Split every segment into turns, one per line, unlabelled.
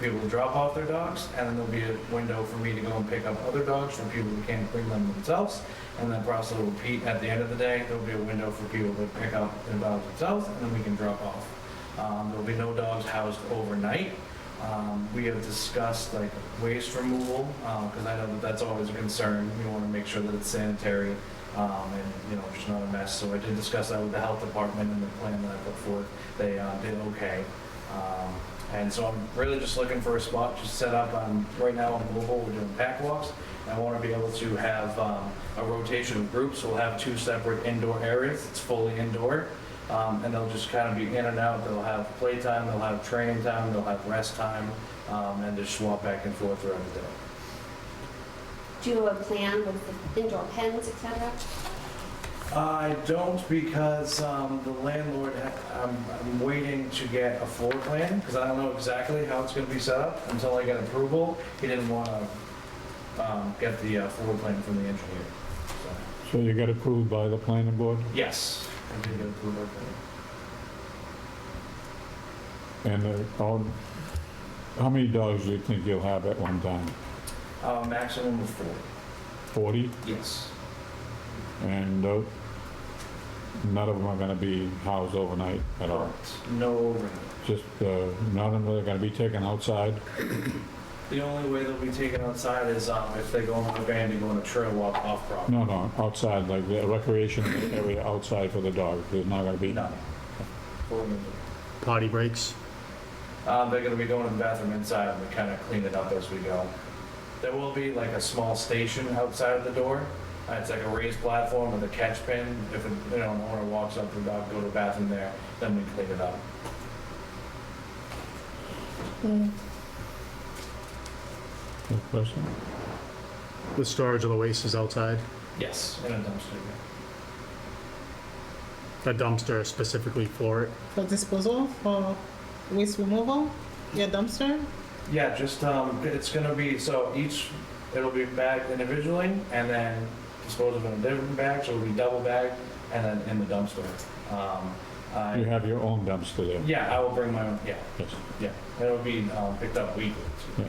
people to drop off their dogs, and then there'll be a window for me to go and pick up other dogs from people who can't bring them themselves. And that process will repeat at the end of the day. There'll be a window for people to pick up their dogs themselves, and then we can drop off. Um, there'll be no dogs housed overnight. Um, we have discussed like waste removal because I know that that's always a concern. We want to make sure that it's sanitary um, and you know just not a mess. So I did discuss that with the health department and the plan that I put forth. They uh, did okay. Um, and so I'm really just looking for a spot to set up. Um, right now on mobile, we're doing pack walks. And I want to be able to have um, a rotation of groups. We'll have two separate indoor areas. It's fully indoor. Um, and they'll just kind of be in and out. They'll have playtime, they'll have training time, they'll have rest time, um, and just swap back and forth throughout the day.
Do you have a plan with the indoor pens, et cetera?
I don't because um, the landlord, I'm I'm waiting to get a floor plan because I don't know exactly how it's going to be set up until I get approval. He didn't want to get the uh, floor plan from the engineer. So,
So you got approved by the planning board?
Yes, I did get approval. for it.
And uh, all, how many dogs do you think you'll have at one time?
Uh, Maximum of four,
40?
yes.
And uh, none of them are going to be housed overnight at all?
No overnight.
Just, uh, none of them are going to be taken outside?
The only way they'll be taken outside is um, if they go on a van to go on a trail walk off property.
No, no, outside, like the recreation area outside for the dogs, there's not going to be?
No. Fully indoor.
Potty breaks?
Um, they're gonna be going to the bathroom inside and we kind of clean it up as we go. There will be like a small station outside of the door. Uh, It's like a raised platform with a catch pin. If, a- you know, an owner walks up to the dog, go to the bathroom there, then we clean it up.
Mm.
No question?
The storage of the waste is outside?
Yes. In a dumpster. yeah.
The dumpster is specifically for it?
for disposal, for waste removal, your dumpster.
Yeah, just, um, it's gonna be, so each, it'll be bagged individually and then disposed of in a different bag, so it'll be double bagged and then in the dumpster. Um,
You
I,
have your own dumpster there?
yeah, I will bring my own, yeah.
Yes.
Yeah, it'll be um, picked up weekly. too.
Yeah.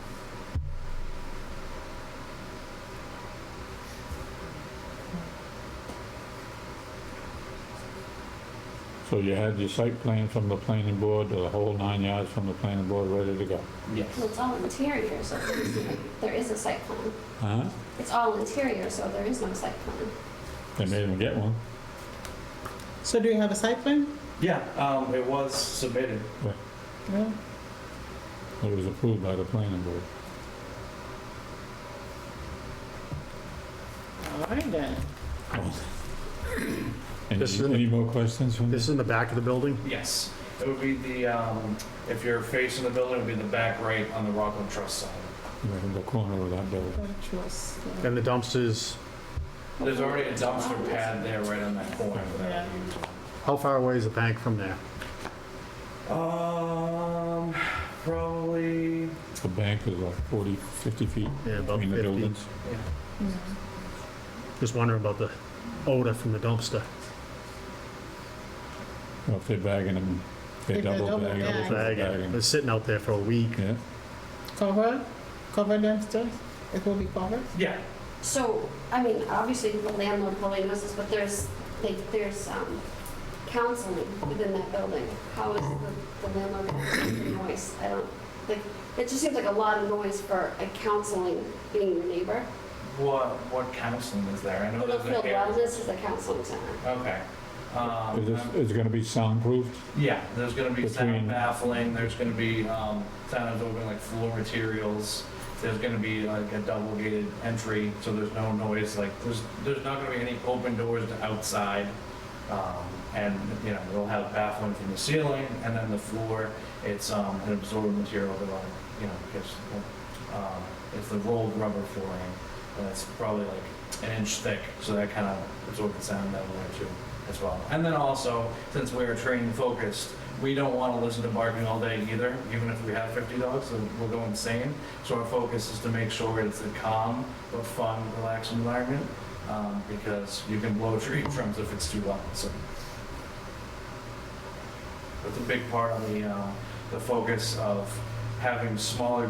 So you had your site plan from the planning board, the whole nine yards from the planning board, ready to go?
Well,
Yes.
it's all interior, so there's no- there is a site plan.
Huh?
It's all interior, so there is no site plan.
They made them get one.
So do you have a site plan?
Yeah, um, it was submitted.
No.
It was approved by the planning board.
All right then.
Any,
This is in the-
any more questions from
This is
this?
in the back of the building?
Yes, it would be the um, if you're facing the building, it would be the back right on the Rockland Trust side.
In the corner of that building.
Don't trust, yeah.
And the dumpsters,
There's already a dumpster pad there right on that corner. that we
how far away is the bank from there?
use. Um, probably.
The bank is like 40, 50 feet
Yeah, about
between the
50.
buildings.
Mm.
Just wondering about the odor from the dumpster.
Well, If they're bagging them, they
If they're
double
double
bagging.
bagged.
Bag, it was sitting out there for a week.
Yeah,
Cover, cover dumpsters. It will be covered.
Yeah.
So, I mean, obviously the landlord probably knows this, but there's, like, there's um, counseling within that building. How is the the landlord counseling the noise? I don't, like, it just seems like a lot of noise for a counseling being your neighbor.
What what counseling is there? I know there's
Littlefield
an area.
Wellness is a counseling center.
Okay. Um,
is this, is it gonna be soundproofed?
Yeah, there's gonna be sound
Between-
baffling, there's gonna be, um, sound absorbing like floor materials, there's gonna be like a double gated entry, so there's no noise, like, there's, there's not gonna be any open doors to outside. Um, and, you know, they'll have baffling from the ceiling, and then the floor, it's, um, an absorbent material that, like, you know, it's, um, it's the rolled rubber flooring, and it's probably like an inch thick, so that kind of absorbs the sound that way too as well. And then also, since we're training focused, we don't want to listen to barking all day either, even if we have 50 dogs, so we'll go insane. So our focus is to make sure it's a calm but fun, relaxed environment, um, because you can blow tree trims if it's too loud. So that's a big part of the uh, the focus of having smaller